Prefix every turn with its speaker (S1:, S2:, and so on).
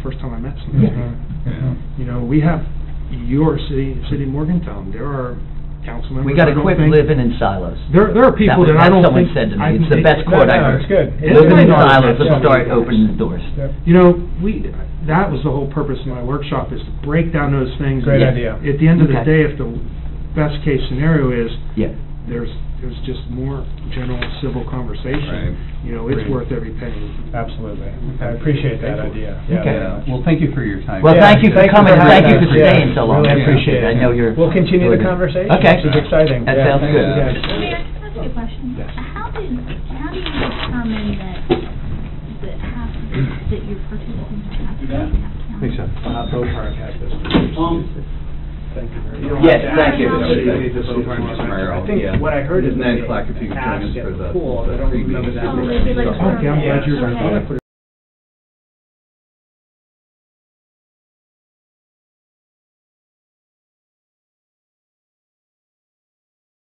S1: Mm-hmm.
S2: we have your city, city of Morgantown, there are council members.
S3: We gotta
S2: I don't
S3: quit
S2: think-
S3: living in silos.
S2: There, there are people
S3: was-
S2: that I
S3: that
S2: don't
S3: someone
S2: think.
S3: said to me.
S2: I-
S3: It's the best
S1: No,
S3: quote I
S1: no,
S3: heard.
S1: it's good. It's
S3: Living in
S1: good.
S3: silos will
S1: Yeah.
S3: start opening the doors.
S1: Yep.
S2: You know, we, that was the whole purpose of my workshop, is to break down those things.
S1: Great
S3: Yeah.
S1: idea.
S2: At the end of the
S3: Okay.
S2: day, if the best case scenario is,
S3: Yeah.
S2: there's, there's just more general civil
S4: Right.
S2: conversation. You know, it's
S4: Right.
S2: worth every penny.
S1: Absolutely. I appreciate that idea. Yeah,
S3: Okay.
S1: very
S4: Yeah,
S1: much.
S4: well, thank you for your time.
S3: Well,
S1: Yeah,
S3: thank you for
S1: thank you
S3: coming,
S1: for
S3: thank you
S1: having
S3: for
S1: us. Yeah,
S3: staying so long, I
S1: really
S3: appreciate it, I
S1: appreciate it.
S3: know you're.
S1: We'll continue the conversation.
S3: Okay.
S1: This is exciting.
S3: That
S1: Yeah,
S3: sounds
S1: thank
S3: good.
S1: you guys.
S5: Mayor, can I ask you a question?
S4: Yes.
S5: How do, how do you determine that, that half, that your participants have to have counted?
S4: Thanks, John.
S1: Uh, Bocark had this. Thank you very much.
S3: Yes, thank you.
S1: I think what I heard is that
S4: Nine
S1: they
S4: o'clock, if you could join us
S1: asked at
S4: for the-
S1: the pool, I
S4: the
S1: don't remember
S4: preview.
S1: that.
S5: Oh, they did like a
S2: Okay, I'm glad
S5: survey.
S2: you're, I'm glad I
S5: Okay.
S2: put